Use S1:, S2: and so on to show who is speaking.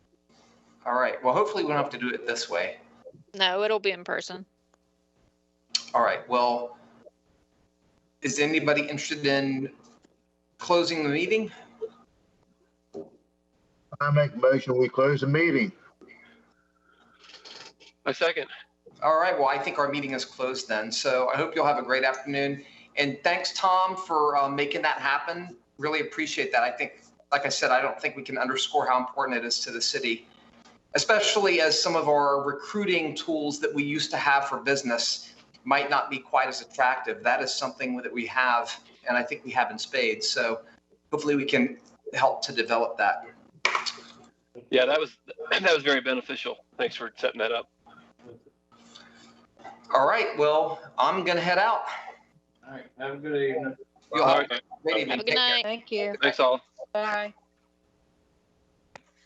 S1: All right. Well, hopefully we don't have to do it this way.
S2: No, it'll be in person.
S1: All right. Well, is anybody interested in closing the meeting?
S3: I make a motion, we close the meeting.
S4: I second.
S1: All right. Well, I think our meeting is closed then. So I hope you'll have a great afternoon. And thanks, Tom, for uh, making that happen. Really appreciate that. I think, like I said, I don't think we can underscore how important it is to the city, especially as some of our recruiting tools that we used to have for business might not be quite as attractive. That is something that we have, and I think we have in spades. So hopefully we can help to develop that.
S4: Yeah, that was, that was very beneficial. Thanks for setting that up.
S1: All right. Well, I'm going to head out.
S5: All right, have a good evening.
S1: You'll
S4: All
S1: have
S4: right.
S1: a great evening.
S2: Have a
S1: Take
S2: good
S1: care.
S2: night.
S6: Thank you.
S4: Thanks all.
S6: Bye.